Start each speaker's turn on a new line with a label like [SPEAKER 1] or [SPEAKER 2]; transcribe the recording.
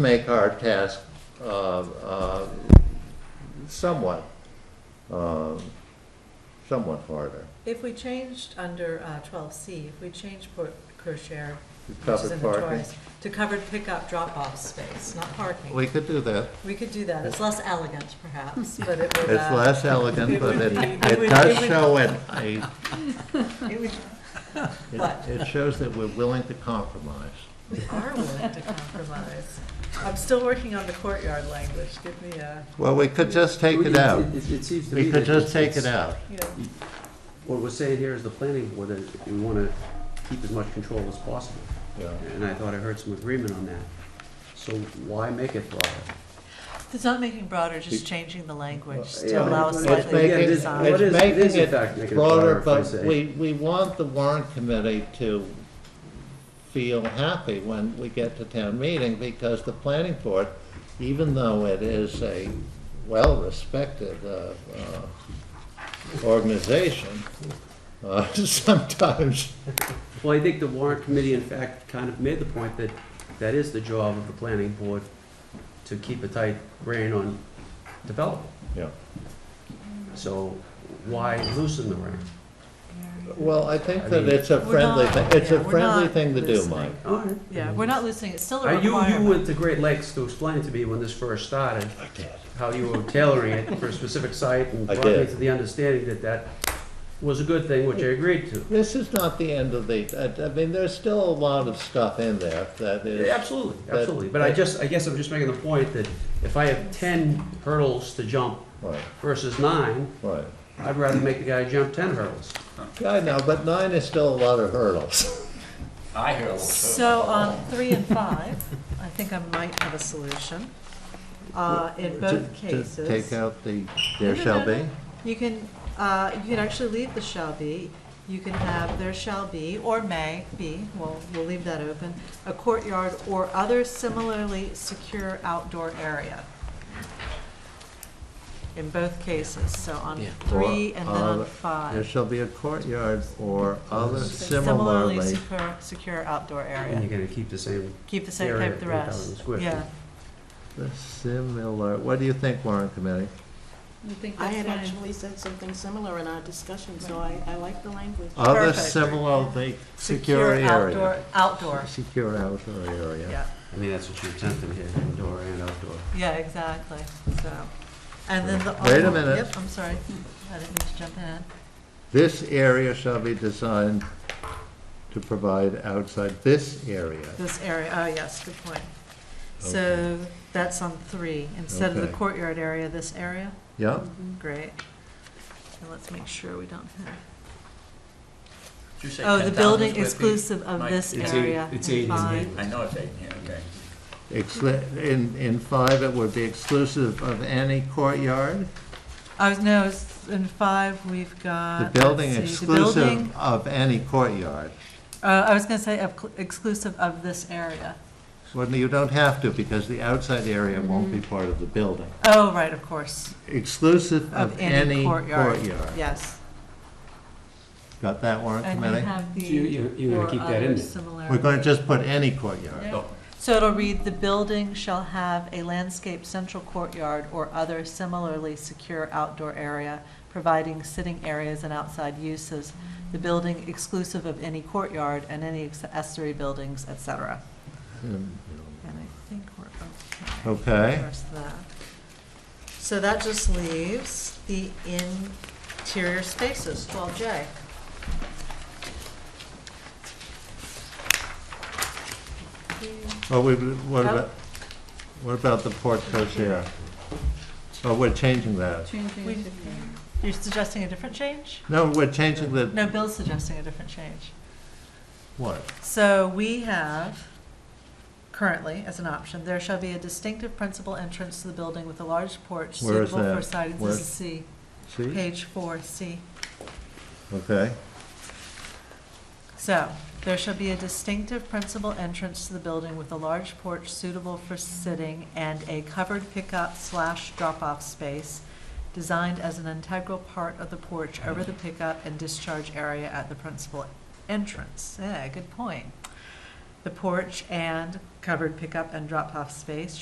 [SPEAKER 1] make our task uh, uh, somewhat, um, somewhat harder.
[SPEAKER 2] If we changed under uh, twelve C, if we changed Port Cochere, which is
[SPEAKER 1] Covered
[SPEAKER 2] in the
[SPEAKER 1] parking,
[SPEAKER 2] Torres, to covered pickup drop-off space, not parking,
[SPEAKER 1] we could do that.
[SPEAKER 2] we could do that. It's less elegant perhaps, but it
[SPEAKER 1] It's
[SPEAKER 2] would, uh,
[SPEAKER 1] less elegant,
[SPEAKER 2] it
[SPEAKER 1] but
[SPEAKER 2] would
[SPEAKER 1] it,
[SPEAKER 2] be- it
[SPEAKER 1] it
[SPEAKER 2] would-
[SPEAKER 1] does
[SPEAKER 2] it would-
[SPEAKER 1] show it, a-
[SPEAKER 2] it would, What?
[SPEAKER 1] it, it shows that we're willing to compromise.
[SPEAKER 2] we are willing to compromise. I'm still working on the courtyard language. Give me a,
[SPEAKER 1] Well, we could just take it
[SPEAKER 3] It-
[SPEAKER 1] out.
[SPEAKER 3] It it seems to me.
[SPEAKER 1] We could
[SPEAKER 3] that
[SPEAKER 1] just take
[SPEAKER 3] it's-
[SPEAKER 1] it out.
[SPEAKER 2] you know,
[SPEAKER 3] What we're saying here is the planning board, that we want to keep as much control as possible.
[SPEAKER 1] Yeah.
[SPEAKER 3] And I thought I heard some agreement on that. So why make it broader?
[SPEAKER 2] it's not making broader, just changing the language to
[SPEAKER 3] Yeah,
[SPEAKER 2] allow a
[SPEAKER 3] it's
[SPEAKER 1] It's
[SPEAKER 2] slightly
[SPEAKER 1] making,
[SPEAKER 3] it
[SPEAKER 2] bigger
[SPEAKER 3] is-
[SPEAKER 2] sign.
[SPEAKER 3] what
[SPEAKER 1] it's
[SPEAKER 3] is- it is in
[SPEAKER 1] making
[SPEAKER 3] fact
[SPEAKER 1] it
[SPEAKER 3] making it
[SPEAKER 1] broader,
[SPEAKER 3] broader, if I
[SPEAKER 1] but
[SPEAKER 3] say.
[SPEAKER 1] we, we want the warrant committee to feel happy when we get to town meeting, because the planning board, even though it is a well-respected, uh, uh, organization, uh, sometimes,
[SPEAKER 3] Well, I think the warrant committee, in fact, kind of made the point that that is the job of the planning board, to keep a tight rein on development.
[SPEAKER 1] Yeah.
[SPEAKER 3] So why loosen the rein?
[SPEAKER 1] well, I think that
[SPEAKER 3] I mean-
[SPEAKER 1] it's a
[SPEAKER 2] We're
[SPEAKER 1] friendly,
[SPEAKER 2] not-
[SPEAKER 1] thing. it's
[SPEAKER 2] yeah,
[SPEAKER 1] a
[SPEAKER 2] we're
[SPEAKER 1] friendly
[SPEAKER 2] not
[SPEAKER 1] thing to do,
[SPEAKER 2] listening.
[SPEAKER 1] Mike.
[SPEAKER 3] All right.
[SPEAKER 2] Yeah, we're not losing, it's still a
[SPEAKER 3] Uh, You, you
[SPEAKER 2] requirement.
[SPEAKER 3] went to Great Lakes to explain to me when this first started.
[SPEAKER 1] I did.
[SPEAKER 3] how you were tailoring it for a specific site and
[SPEAKER 1] I
[SPEAKER 3] brought me
[SPEAKER 1] did.
[SPEAKER 3] to the understanding that that was a good thing, which I agreed to.
[SPEAKER 1] This is not the end of the, I- I mean, there's still a lot of stuff in there that is.
[SPEAKER 3] Absolutely, absolutely. But I just, I guess I'm just making the point that if I have ten hurdles to jump
[SPEAKER 1] Right,
[SPEAKER 3] versus nine,
[SPEAKER 1] right.
[SPEAKER 3] I'd rather make the guy jump ten hurdles.
[SPEAKER 1] Yeah, I know, but nine is still a lot of hurdles.
[SPEAKER 4] I hear a little.
[SPEAKER 2] So on three and five, I think I might have a solution. Uh, In both
[SPEAKER 1] To- to Take
[SPEAKER 2] cases,
[SPEAKER 1] out the, there
[SPEAKER 2] No, no,
[SPEAKER 1] shall
[SPEAKER 2] no,
[SPEAKER 1] be?
[SPEAKER 2] you can, uh, you can actually leave the shall be, you can have there shall be, or may be, well, we'll leave that open, a courtyard or other similarly secure outdoor area. In both cases, so on
[SPEAKER 3] Yeah.
[SPEAKER 2] three
[SPEAKER 1] Or
[SPEAKER 2] and then
[SPEAKER 1] other-
[SPEAKER 2] on
[SPEAKER 1] There
[SPEAKER 2] five.
[SPEAKER 1] shall be a courtyard or other
[SPEAKER 2] Similarly
[SPEAKER 1] similarly.
[SPEAKER 2] secure, secure outdoor
[SPEAKER 3] And
[SPEAKER 2] area.
[SPEAKER 3] you're gonna keep the same,
[SPEAKER 2] Keep the same,
[SPEAKER 3] Area,
[SPEAKER 2] keep the
[SPEAKER 3] 3,000
[SPEAKER 2] rest.
[SPEAKER 3] square feet.
[SPEAKER 2] Yeah.
[SPEAKER 1] Similar, what do you think, Warren Committee?
[SPEAKER 5] I think
[SPEAKER 6] I
[SPEAKER 5] that's
[SPEAKER 6] had
[SPEAKER 5] fine.
[SPEAKER 6] actually said something similar in our discussion, so I, I like the language.
[SPEAKER 1] Other
[SPEAKER 2] Perfect.
[SPEAKER 1] similarly secure
[SPEAKER 2] outdoor,
[SPEAKER 1] area.
[SPEAKER 2] Outdoor,
[SPEAKER 1] Secure outdoor area.
[SPEAKER 2] yeah,
[SPEAKER 3] I mean, that's what you're attempting here, indoor and outdoor.
[SPEAKER 2] yeah, exactly, so. And then the.
[SPEAKER 1] Wait a minute.
[SPEAKER 2] Yep, I'm sorry, I didn't mean to jump in.
[SPEAKER 1] This area shall be designed to provide outside this area.
[SPEAKER 2] This area, oh, yes, good point. So that's on three, instead of the
[SPEAKER 1] Okay.
[SPEAKER 2] courtyard area, this area,
[SPEAKER 1] Yeah,
[SPEAKER 2] great. And let's make sure we don't have,
[SPEAKER 4] Did you say
[SPEAKER 2] oh, the
[SPEAKER 4] 10,000
[SPEAKER 2] building
[SPEAKER 4] square feet?
[SPEAKER 2] exclusive of
[SPEAKER 4] Mike,
[SPEAKER 2] this
[SPEAKER 3] it's
[SPEAKER 2] area.
[SPEAKER 3] eight- it's eight, isn't
[SPEAKER 2] fine.
[SPEAKER 3] it?
[SPEAKER 4] I know it's eight, yeah, okay.
[SPEAKER 1] Exclu- in, in five, it would be exclusive of any courtyard?
[SPEAKER 2] I was, Oh, no, it's in five, we've got.
[SPEAKER 1] The building
[SPEAKER 2] Uh, let's see, the building-
[SPEAKER 1] exclusive of any courtyard.
[SPEAKER 2] Uh, I was gonna say of cl- exclusive of this area.
[SPEAKER 1] Well, you don't have to, because the outside area won't be part of the building.
[SPEAKER 2] Oh, right, of course.
[SPEAKER 1] Exclusive of any courtyard.
[SPEAKER 2] Yes.
[SPEAKER 1] Got that, warrant
[SPEAKER 2] And you
[SPEAKER 1] committee?
[SPEAKER 2] have the.
[SPEAKER 3] You- you- you're gonna
[SPEAKER 2] or
[SPEAKER 3] keep that in
[SPEAKER 2] other
[SPEAKER 3] there.
[SPEAKER 2] similar-
[SPEAKER 1] We're going to just put any courtyard.
[SPEAKER 4] So,
[SPEAKER 2] So it'll read, "The building shall have a landscaped central courtyard or other similarly secure outdoor area, providing sitting areas and outside uses. The building exclusive of any courtyard and any accessory buildings, et cetera."
[SPEAKER 1] Mm,
[SPEAKER 2] And I think we're okay.
[SPEAKER 1] Okay,
[SPEAKER 2] There's that. So that just leaves the interior spaces, twelve J.
[SPEAKER 1] well, we, what
[SPEAKER 2] Oh.
[SPEAKER 1] about, what about the porte cochere? Oh, we're changing that.
[SPEAKER 5] Changing
[SPEAKER 2] We-
[SPEAKER 5] it to green.
[SPEAKER 2] You're suggesting a different change?
[SPEAKER 1] No, we're changing the,
[SPEAKER 2] No, Bill's suggesting a different change.
[SPEAKER 1] what?
[SPEAKER 2] So we have currently, as an option, there shall be a distinctive principal entrance to the building with a large porch
[SPEAKER 1] Where is
[SPEAKER 2] suitable for
[SPEAKER 1] that?
[SPEAKER 2] sightings.
[SPEAKER 1] Where-
[SPEAKER 2] This is C,
[SPEAKER 1] See?
[SPEAKER 2] page four, C.
[SPEAKER 1] Okay,
[SPEAKER 2] So, there shall be a distinctive principal entrance to the building with a large porch suitable for sitting and a covered pickup slash drop-off space designed as an integral part of the porch over the pickup and discharge area at the principal entrance. Yeah, good point. the porch and covered pickup and drop-off space